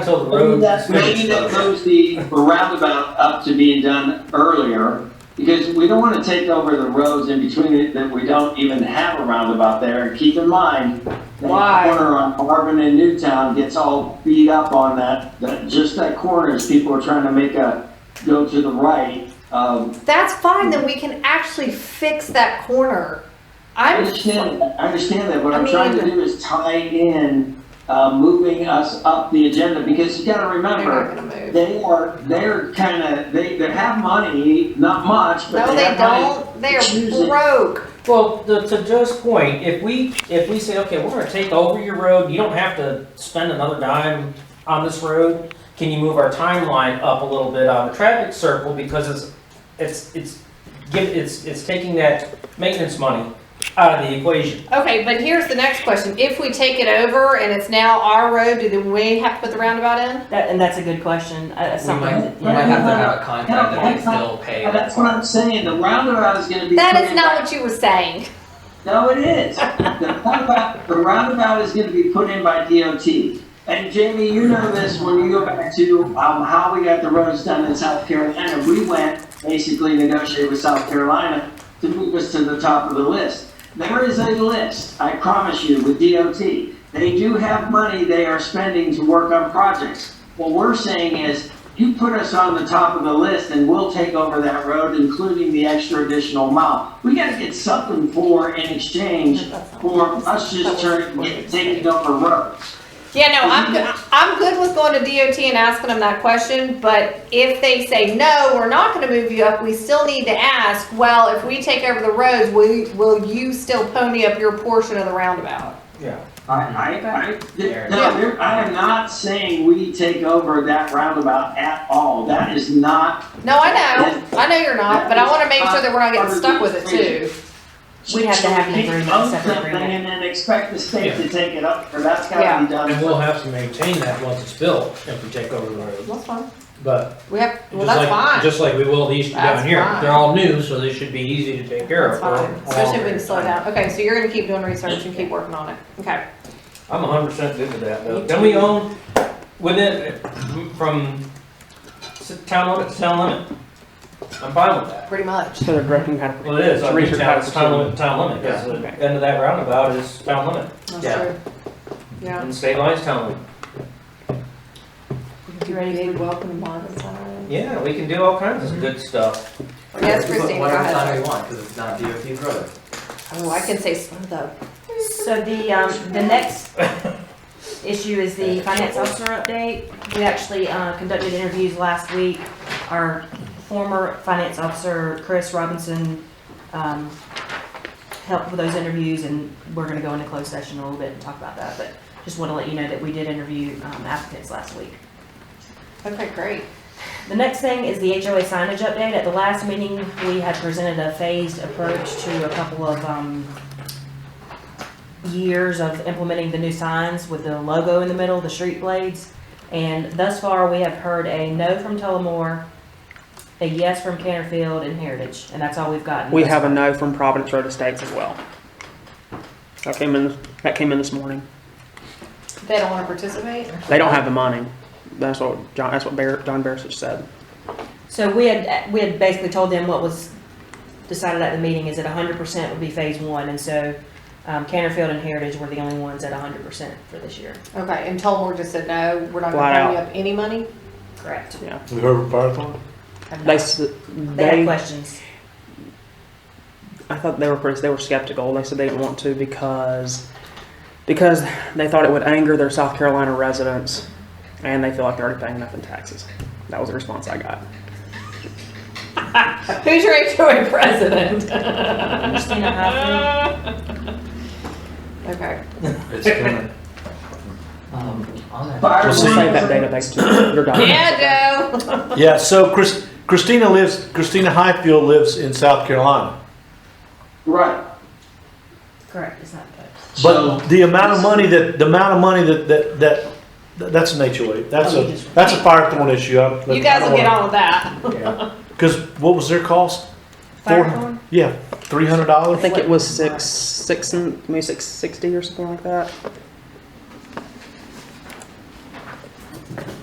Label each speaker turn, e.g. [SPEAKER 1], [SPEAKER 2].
[SPEAKER 1] Until the
[SPEAKER 2] Maybe
[SPEAKER 1] road.
[SPEAKER 2] that, maybe that moves the roundabout up to being done earlier, because we don't want to take over the roads in between it that we don't even have a roundabout there. And keep in mind, that
[SPEAKER 3] Why?
[SPEAKER 2] corner on Marvin and Newtown gets all beat up on that, that, just that corner as people are trying to make a, go to the right. Um,
[SPEAKER 3] That's fine, then we can actually fix that corner.
[SPEAKER 2] I
[SPEAKER 3] I'm,
[SPEAKER 2] understand, that. I understand that, what
[SPEAKER 3] I
[SPEAKER 2] I'm trying to
[SPEAKER 3] mean-
[SPEAKER 2] do is tie in, uh, moving us up the agenda, because you gotta
[SPEAKER 3] they're
[SPEAKER 2] remember,
[SPEAKER 3] not gonna move.
[SPEAKER 2] They are, they're kind of, they, they have money, not much, but
[SPEAKER 3] No,
[SPEAKER 2] they
[SPEAKER 3] they
[SPEAKER 2] have money.
[SPEAKER 3] don't, they're
[SPEAKER 2] Choosing.
[SPEAKER 3] broke.
[SPEAKER 1] Well, to, to Joe's point, if we, if we say, okay, we're gonna take over your road, you don't have to spend another dime on this road, can you move our timeline up a little bit on the traffic circle, because it's, it's, it's, give, it's, it's taking that maintenance money out of the equation.
[SPEAKER 3] Okay, but here's the next question, if we take it over and it's now our road, do then we have to put the roundabout in?
[SPEAKER 4] That, and that's a good question. Uh,
[SPEAKER 5] We
[SPEAKER 4] something.
[SPEAKER 5] might, we might have to have a contract that they still pay.
[SPEAKER 2] And that's what I'm saying, the roundabout is gonna be.
[SPEAKER 3] That
[SPEAKER 2] put
[SPEAKER 3] is
[SPEAKER 2] in
[SPEAKER 3] not
[SPEAKER 2] by-
[SPEAKER 3] what you were saying.
[SPEAKER 2] No, it is. The roundabout, the roundabout is gonna be put in by DOT. And Jamie, you know this, when you go back to, um, how we got the roads done in South Carolina, we went, basically negotiated with South Carolina to move us to the top of the list. There is a list, I promise you, with DOT. They do have money they are spending to work on projects. What we're saying is, you put us on the top of the list and we'll take over that road, including the extra additional mile. We gotta get something for in exchange for us just turning, get- taking over roads.
[SPEAKER 3] Yeah, no, I'm, go- I'm good with going to DOT and asking them that question, but if they say, no, we're not gonna move you up, we still need to ask, well, if we take over the roads, will, will you still pony up your portion of the roundabout?
[SPEAKER 1] Yeah.
[SPEAKER 2] I, I, I, there- no, there- I am not saying we take over that roundabout at all. That is not
[SPEAKER 3] No, I know, I know you're not, but I wanna make sure that we're not getting stuck with it too.
[SPEAKER 4] We'd have to have an
[SPEAKER 2] Pick
[SPEAKER 4] agreement,
[SPEAKER 2] up
[SPEAKER 4] separate
[SPEAKER 2] something
[SPEAKER 4] agreement.
[SPEAKER 2] And then expect the state to take it up, or that's gotta
[SPEAKER 3] Yeah.
[SPEAKER 2] be done.
[SPEAKER 6] And we'll have to maintain that once it's built if we take over the road,
[SPEAKER 3] That's fine.
[SPEAKER 6] but
[SPEAKER 3] We have, well,
[SPEAKER 6] just
[SPEAKER 3] that's
[SPEAKER 6] like,
[SPEAKER 3] fine,
[SPEAKER 6] just like we will these
[SPEAKER 3] That's
[SPEAKER 6] down here,
[SPEAKER 3] fine.
[SPEAKER 6] they're all new, so they should be easy to take care of.
[SPEAKER 3] that's
[SPEAKER 6] for
[SPEAKER 3] fine,
[SPEAKER 6] a long
[SPEAKER 3] especially if we can
[SPEAKER 6] period of
[SPEAKER 3] slow
[SPEAKER 6] time.
[SPEAKER 3] down. Okay, so you're gonna keep doing research and keep working on it, okay.
[SPEAKER 1] I'm hundred percent good with that, though.
[SPEAKER 3] Me
[SPEAKER 1] Then we
[SPEAKER 3] too.
[SPEAKER 1] own, within, from s- town limit to town limit. I'm fine with that.
[SPEAKER 3] Pretty much.
[SPEAKER 7] So they're directing how to.
[SPEAKER 1] Well, it is, I mean, town, it's town limit, to town limit, because
[SPEAKER 7] Yeah.
[SPEAKER 1] the end of that roundabout is town limit,
[SPEAKER 3] That's
[SPEAKER 1] Yeah.
[SPEAKER 3] true. Yeah.
[SPEAKER 1] and state line's town limit.
[SPEAKER 4] You ready for
[SPEAKER 3] welcome bonus
[SPEAKER 1] Yeah, we can do all kinds
[SPEAKER 3] Mm-hmm.
[SPEAKER 1] of good stuff.
[SPEAKER 3] Yes,
[SPEAKER 5] We put
[SPEAKER 3] Christina, go
[SPEAKER 5] Whatever
[SPEAKER 3] ahead.
[SPEAKER 5] time we want, because it's not DOT's road.
[SPEAKER 3] Oh, I can say slow though.
[SPEAKER 4] So the, um, the next issue is the finance officer update. We actually, uh, conducted interviews last week. Our former finance officer, Chris Robinson, um, helped with those interviews and we're gonna go into closed session a little bit and talk about that, but just wanna let you know that we did interview, um, applicants last week.
[SPEAKER 3] Okay, great.
[SPEAKER 4] The next thing is the HOA signage update. At the last meeting, we had presented a phased approach to a couple of, um, years of implementing the new signs with the logo in the middle, the street blades. And thus far, we have heard a no from Tullamore, a yes from Canterfield and Heritage, and that's all we've gotten.
[SPEAKER 7] We have a no from Providence Road Estates as well. That came in. That came in this morning.
[SPEAKER 3] They don't wanna participate?
[SPEAKER 7] They don't have the money. That's what John. That's what Bar- John Barisic said.
[SPEAKER 4] So we had, we had basically told them what was decided at the meeting is that hundred percent would be phase one, and so, um, Canterfield and Heritage were the only ones at hundred percent for this year.
[SPEAKER 3] Okay, and Tullamore just said, no, we're not
[SPEAKER 7] Flat
[SPEAKER 3] gonna pony up any money?
[SPEAKER 4] Correct.
[SPEAKER 8] The Herbert Firethorn?
[SPEAKER 7] They s-
[SPEAKER 4] They have
[SPEAKER 7] they.
[SPEAKER 4] questions.
[SPEAKER 7] I thought they were pretty, they were skeptical. They said they didn't want to because because they thought it would anger their South Carolina residents, and they feel like they're already paying enough in taxes. That was the response I got.
[SPEAKER 3] Who's your HOA president?
[SPEAKER 4] Christina Hoffman,
[SPEAKER 3] Okay.
[SPEAKER 5] It's gonna, um, on that.
[SPEAKER 2] Fire-
[SPEAKER 7] Just save that database to your document.
[SPEAKER 3] Yeah, Joe.
[SPEAKER 8] Yeah, so Chris, Christina lives, Christina Highfield lives in South Carolina.
[SPEAKER 2] Right.
[SPEAKER 4] correct, it's not good.
[SPEAKER 2] So-
[SPEAKER 8] But the amount of money that, the amount of money that, that, that, that's an HOA. That's a, that's a Firethorn issue. I-
[SPEAKER 3] You guys will get on with that.
[SPEAKER 8] Cause what was their cost? Four-
[SPEAKER 4] Firethorn?
[SPEAKER 8] Yeah, three hundred
[SPEAKER 7] I
[SPEAKER 8] dollars?
[SPEAKER 7] think it was six, six, and- maybe six sixty or something like that.